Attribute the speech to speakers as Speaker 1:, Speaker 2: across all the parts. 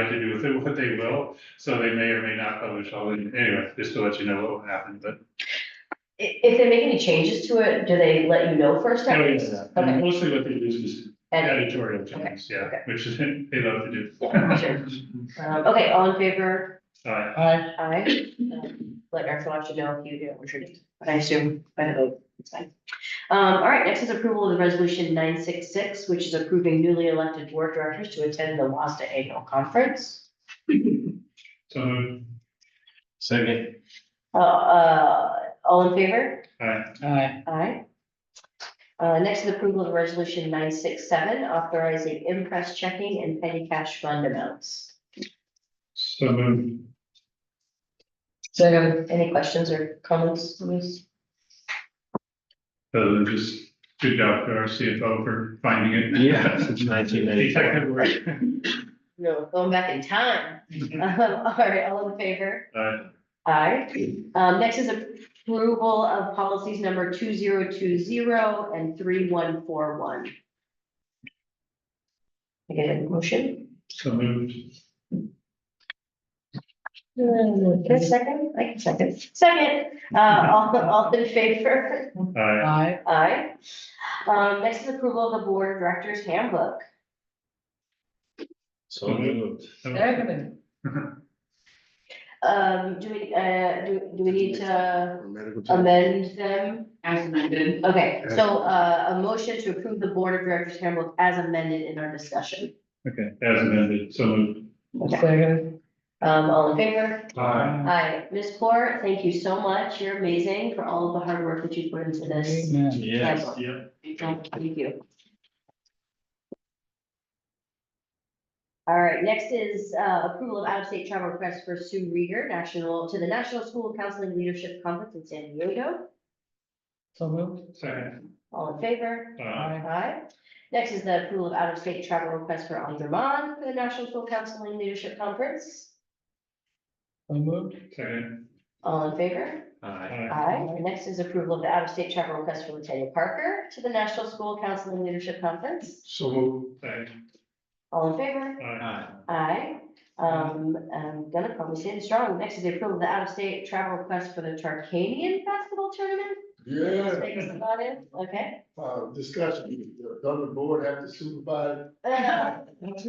Speaker 1: like to do with it, what they will, so they may or may not publish all, the- anyway, just to let you know what will happen, but.
Speaker 2: I- if they make any changes to it, do they let you know first?
Speaker 1: No,
Speaker 2: time?
Speaker 1: yes,
Speaker 2: Okay.
Speaker 1: and Mostly what they do is just
Speaker 2: And,
Speaker 1: editorial changes, yeah,
Speaker 2: okay.
Speaker 1: which is, they love to do.
Speaker 2: yeah, sure. Um, okay, all in favor?
Speaker 1: Alright,
Speaker 3: Aye.
Speaker 2: Aye. Um, Let Eric Watch know if you do, which you do, but I assume, by the vote, it's fine. Um, all right, next is approval of the resolution nine six six, which is approving newly elected board directors to attend the WASDA annual conference.
Speaker 1: so, moved.
Speaker 4: Second.
Speaker 2: Uh, uh, all in favor?
Speaker 1: alright,
Speaker 3: Aye.
Speaker 2: Aye. Uh, next is approval of resolution nine six seven, authorizing impress checking and petty cash fund amounts.
Speaker 1: so moved.
Speaker 3: Second.
Speaker 2: Any questions or comments, Louise?
Speaker 1: So then just good job to our CFO for finding it.
Speaker 4: Yeah, since nineteen ninety-four.
Speaker 1: Detective work.
Speaker 2: No, going back in time. Um, all right, all in favor?
Speaker 1: Alright,
Speaker 2: Aye. Um, next is approval of policies number two zero two zero and three one four one. I get a motion?
Speaker 1: so moved.
Speaker 2: Can I second? I can second. Second, uh, all, all in favor?
Speaker 1: Alright.
Speaker 3: Aye.
Speaker 2: Aye. Um, next is approval of the board of directors handbook.
Speaker 4: So moved.
Speaker 1: so moved.
Speaker 3: Second.
Speaker 2: Um, do we, uh, do, do we need to
Speaker 4: Medical
Speaker 2: Um,
Speaker 4: check.
Speaker 2: amend them?
Speaker 5: As amended.
Speaker 2: Okay, so uh, a motion to approve the Board of Directors handbook as amended in our discussion.
Speaker 1: Okay, as amended, so moved.
Speaker 2: Okay.
Speaker 3: Second.
Speaker 2: Um, all in favor?
Speaker 1: Aye.
Speaker 2: Hi, Ms. Poor, thank you so much. You're amazing for all of the hard work that you put into this.
Speaker 3: Amen.
Speaker 4: Yes.
Speaker 2: handbook.
Speaker 1: Yep.
Speaker 2: Thank you. All right, next is uh, approval of out-of-state travel request for Sue Rieger, national, to the National School Counseling Leadership Conference in San Diego.
Speaker 3: So moved.
Speaker 1: Second.
Speaker 2: All in favor?
Speaker 1: Aye.
Speaker 2: Aye. Next is the approval of out-of-state travel request for Andraman for the National School Counseling Leadership Conference.
Speaker 3: So moved.
Speaker 1: Second.
Speaker 2: All in favor?
Speaker 4: Aye.
Speaker 1: Aye.
Speaker 2: Aye. And next is approval of the out-of-state travel request for Latoya Parker to the National School Counseling Leadership Conference.
Speaker 4: So moved.
Speaker 1: Second.
Speaker 2: All in favor?
Speaker 1: Aye.
Speaker 4: Aye.
Speaker 2: Aye. Um, I'm gonna probably say it strong. Next is the approval of the out-of-state travel request for the Tarkanian basketball tournament. Thanks,
Speaker 6: Yeah,
Speaker 2: Claudia. Okay.
Speaker 6: uh, discussion, does the board have to supervise?
Speaker 2: Uh,
Speaker 6: Thank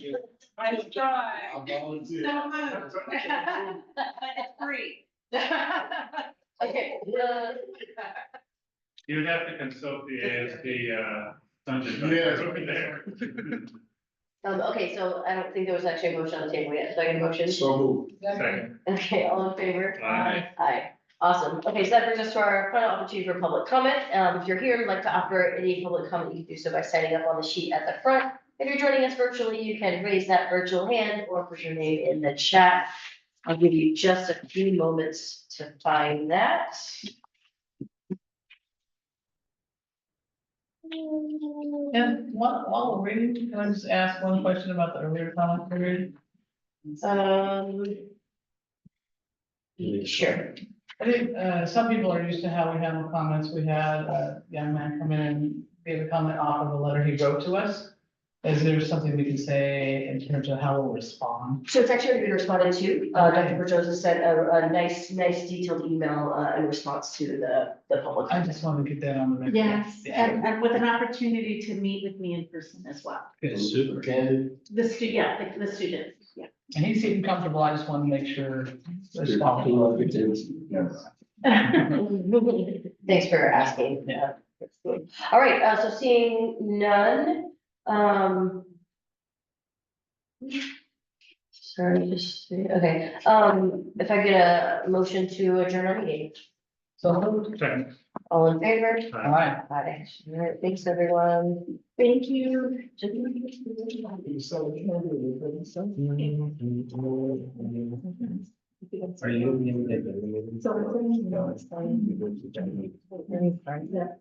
Speaker 6: you.
Speaker 5: I try
Speaker 6: I volunteer.
Speaker 5: so much. It's free.
Speaker 2: Okay. uh,
Speaker 1: You would have to consult the ASD, uh, dungeon.
Speaker 6: Yes.
Speaker 1: Over there.
Speaker 2: Um, okay, so I don't think there was actually a motion on the table yet. So I get a motion?
Speaker 6: So moved.
Speaker 1: Second.
Speaker 2: Okay, all in favor?
Speaker 1: Aye.
Speaker 2: Aye, awesome. Okay, so that brings us to our final opportunity for public comment. Um, if you're here and would like to offer any public comment, you can do so by signing up on the sheet at the front. If you're joining us virtually, you can raise that virtual hand or put your name in the chat. I'll give you just a few moments to find that.
Speaker 3: And while, while we're reading, can I just ask one question about the earlier comment period?
Speaker 2: Um, sure.
Speaker 3: I think, uh, some people are used to how we handle comments. We had a young man come in and gave a comment off of a letter he wrote to us. Is there something we can say in terms of how we'll respond?
Speaker 2: So it's actually been responded to. Uh, Dr. Berjosa sent a, a nice, nice detailed email, uh, in response to the, the public.
Speaker 3: I just want to get that on the record.
Speaker 5: Yes,
Speaker 3: Yeah.
Speaker 5: and, and with an opportunity to meet with me in person as well.
Speaker 4: Yes, super.
Speaker 6: Candid,
Speaker 5: The stu, yeah, the- the students, yeah.
Speaker 3: And he seemed comfortable. I just want to make sure.
Speaker 6: you
Speaker 3: response.
Speaker 6: know, good things. Yes.
Speaker 2: Thanks for asking. Uh,
Speaker 3: Yeah.
Speaker 2: All right, uh, so seeing none, um. Sorry, just, okay, um, if I get a motion to adjourn our meeting,
Speaker 3: So moved.
Speaker 1: Second.
Speaker 2: all in favor?
Speaker 3: All right.
Speaker 2: Aye. All right, thanks, everyone. Thank you.
Speaker 6: So, you know, it's something.
Speaker 4: Are you?
Speaker 6: So, you know, it's fine.